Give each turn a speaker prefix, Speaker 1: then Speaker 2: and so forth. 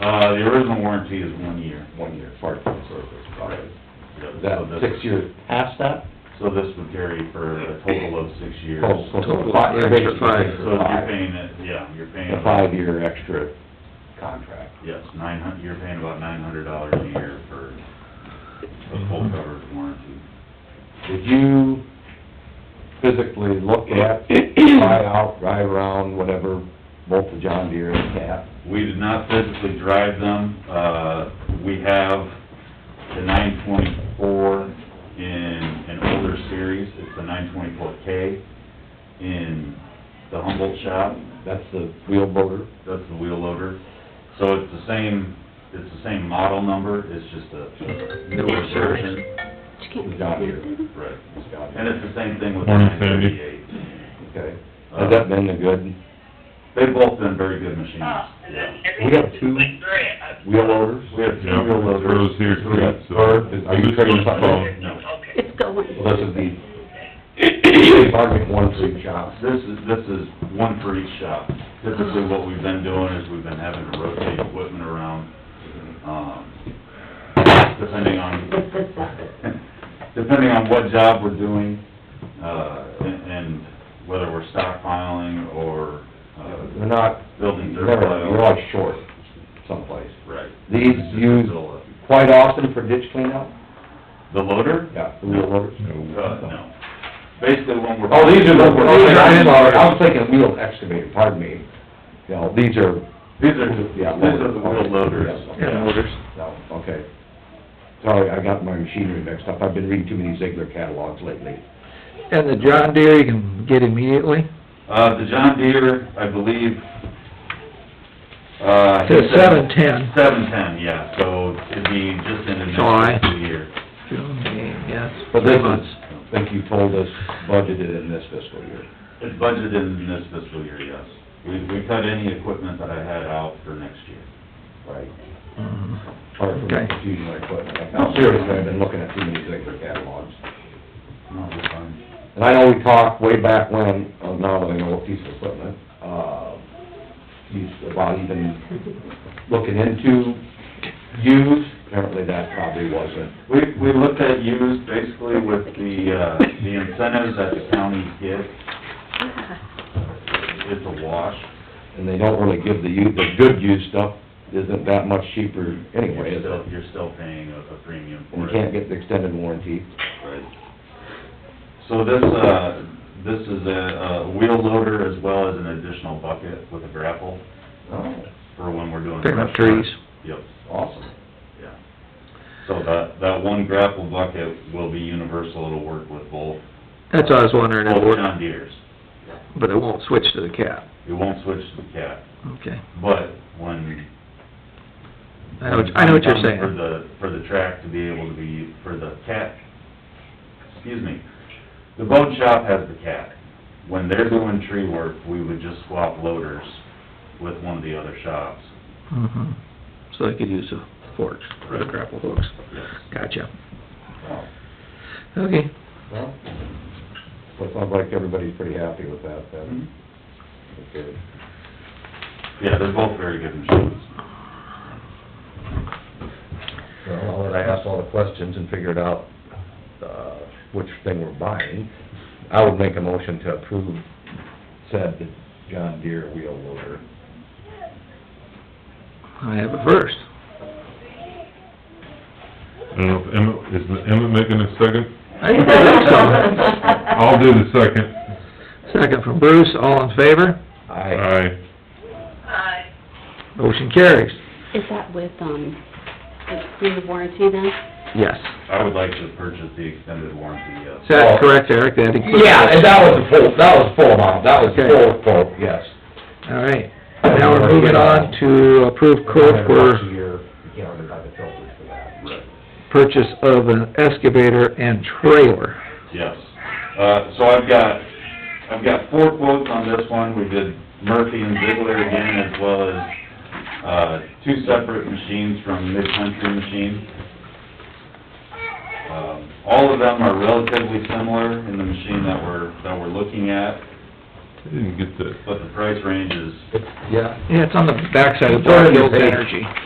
Speaker 1: Uh, the original warranty is one year.
Speaker 2: one year, part of the service, probably. Is that
Speaker 1: So this-
Speaker 2: six years past that?
Speaker 1: So this would carry for a total of six years.
Speaker 2: Oh, so
Speaker 1: So
Speaker 2: it's
Speaker 3: Total,
Speaker 2: fi-
Speaker 3: extra
Speaker 2: basically
Speaker 3: five.
Speaker 2: it's
Speaker 1: you're paying it, yeah, you're paying.
Speaker 2: A five-year extra contract.
Speaker 1: Yes, nine hun, you're paying about nine hundred dollars a year for a full coverage warranty.
Speaker 2: Did you physically look at, try out, drive around, whatever, both the John Deere and the Cat?
Speaker 1: We did not physically drive them, uh, we have the nine twenty-four in an older series, it's the nine twenty-four K in the Humboldt shop,
Speaker 2: That's the wheel motor?
Speaker 1: that's the wheel loader. So it's the same, it's the same model number, it's just a newer version.
Speaker 2: the John Deere.
Speaker 1: Right. And it's Uh, the same thing with the
Speaker 4: Morning,
Speaker 1: nine
Speaker 4: Sandy.
Speaker 1: thirty-eight.
Speaker 2: Okay. Has that been a good
Speaker 1: Uh, They've both been very good machines.
Speaker 2: We have two wheel loaders?
Speaker 1: We have two
Speaker 4: Yeah,
Speaker 1: wheel
Speaker 4: it's
Speaker 1: loaders.
Speaker 4: those here
Speaker 2: Three.
Speaker 4: too, so.
Speaker 2: Or is- are you
Speaker 4: This
Speaker 2: trading
Speaker 4: one's
Speaker 2: something in?
Speaker 4: wrong.
Speaker 1: No.
Speaker 3: It's going.
Speaker 2: Well, this is the, they've argued one for each shop.
Speaker 1: This is, this is one for each shop. Typically, what we've been doing is we've been having to rotate equipment around, um, depending on, depending on what job we're doing, uh, and and whether we're stockpiling or,
Speaker 2: They're
Speaker 1: uh,
Speaker 2: not,
Speaker 1: building
Speaker 2: you're
Speaker 1: dirt
Speaker 2: never,
Speaker 1: pile.
Speaker 2: you're always short someplace.
Speaker 1: Right.
Speaker 2: These
Speaker 1: It's just a
Speaker 2: use-
Speaker 1: Zilla.
Speaker 2: Quite often for ditch cleanout?
Speaker 1: The loader?
Speaker 2: Yeah, the wheel loaders.
Speaker 1: Uh,
Speaker 4: No.
Speaker 1: no. Basically, when we're.
Speaker 2: Oh, these are the, okay, I'm sorry, I was thinking wheel excavator, pardon me. You know, these are,
Speaker 1: These are, these
Speaker 2: yeah.
Speaker 1: are the wheel loaders.
Speaker 2: Yeah,
Speaker 3: Yeah,
Speaker 2: loaders. No, okay. Sorry, I got my machinery mixed up, I've been reading too many Ziegler catalogs lately.
Speaker 3: And the John Deere, you can get immediately?
Speaker 1: Uh, the John Deere, I believe, uh. he
Speaker 3: Says
Speaker 1: said-
Speaker 3: 710.
Speaker 1: Seven-ten, yeah, so it'd be just in the
Speaker 3: July.
Speaker 1: next fiscal year.
Speaker 3: June, May, yes.
Speaker 2: But this
Speaker 3: three
Speaker 2: is,
Speaker 3: months.
Speaker 2: I think you told us budgeted in this fiscal year.
Speaker 1: It's budgeted in this fiscal year, yes. We, we cut any equipment that I had out for next year.
Speaker 2: Right.
Speaker 3: Mhm.
Speaker 2: Sorry for
Speaker 3: Okay.
Speaker 2: confusing my equipment. I'm seriously, I've been looking at too many Ziegler catalogs.
Speaker 1: No, we're fine.
Speaker 2: And I know we talked way back when, uh, now that I know what piece of equipment, uh, he's about even looking into used, apparently that probably wasn't.
Speaker 1: We, we looked at used basically with the, uh, the incentives that the county gives. It's a wash.
Speaker 2: And they don't really give the u the good used stuff isn't that much cheaper anyway,
Speaker 1: You're
Speaker 2: is
Speaker 1: still,
Speaker 2: it?
Speaker 1: you're still paying a, a premium
Speaker 2: You
Speaker 1: for it.
Speaker 2: can't get the extended warranty.
Speaker 1: So this, uh, this is a, a wheel loader as well as an additional bucket with a grapple
Speaker 2: Oh,
Speaker 1: for when we're doing.
Speaker 3: Picking up
Speaker 1: brush work.
Speaker 3: trees.
Speaker 1: Yep,
Speaker 2: awesome.
Speaker 1: yeah. So that, that one grapple bucket will be universal, it'll work with both,
Speaker 3: That's what I was wondering, it
Speaker 1: both
Speaker 3: would,
Speaker 1: John Deere's.
Speaker 3: but it won't switch to the cat.
Speaker 1: It won't switch to the cat,
Speaker 3: Okay.
Speaker 1: but when.
Speaker 3: I know, what- I know what you're
Speaker 1: For
Speaker 3: saying.
Speaker 1: the, for the track to be able to be, for the cat, excuse me, the boat shop has the cat. When they're doing tree work, we would just swap loaders with one of the other shops.
Speaker 3: Mhm. So they could use the forks, or the grapple hooks.
Speaker 1: Yes.
Speaker 3: Gotcha.
Speaker 2: Wow.
Speaker 3: Okay.
Speaker 2: Well, so it sounds like everybody's pretty happy with that then. Okay.
Speaker 1: Yeah, they're both very good machines.
Speaker 2: Well, I'll let I ask all the questions and figured out, uh, which thing we're buying, I would make a motion to approve said John Deere wheel loader.
Speaker 3: I have a first.
Speaker 4: I don't know if Emma, is Emma making a second?
Speaker 3: I think so.
Speaker 4: I'll do the second.
Speaker 3: Second from Bruce, all in favor?
Speaker 2: I,
Speaker 4: Aye.
Speaker 3: Motion carries.
Speaker 5: Is that with, um, through the warranty then?
Speaker 3: Yes.
Speaker 1: I would like to purchase the extended warranty,
Speaker 3: Is
Speaker 1: yes.
Speaker 3: that correct, Eric? That includes...
Speaker 2: yeah, and that was the full, that was full amount, that was full quote, yes.
Speaker 3: All right. Now we're moving on to approve quote for
Speaker 2: You know, they buy the filters for that.
Speaker 1: Right.
Speaker 3: purchase of an excavator and trailer.
Speaker 1: Yes. Uh, so I've got, I've got four quotes on this one. We did Murphy and Ziegler again, as well as, uh, two separate machines from Mid-Country Machine. Um, all of them are relatively similar in the machine that we're, that we're looking at,
Speaker 4: I didn't get that.
Speaker 1: but the price range is
Speaker 2: Yeah,
Speaker 3: Yeah, it's on the backside of
Speaker 2: It's on
Speaker 3: Black
Speaker 2: your
Speaker 3: Hills
Speaker 2: page.
Speaker 3: Energy.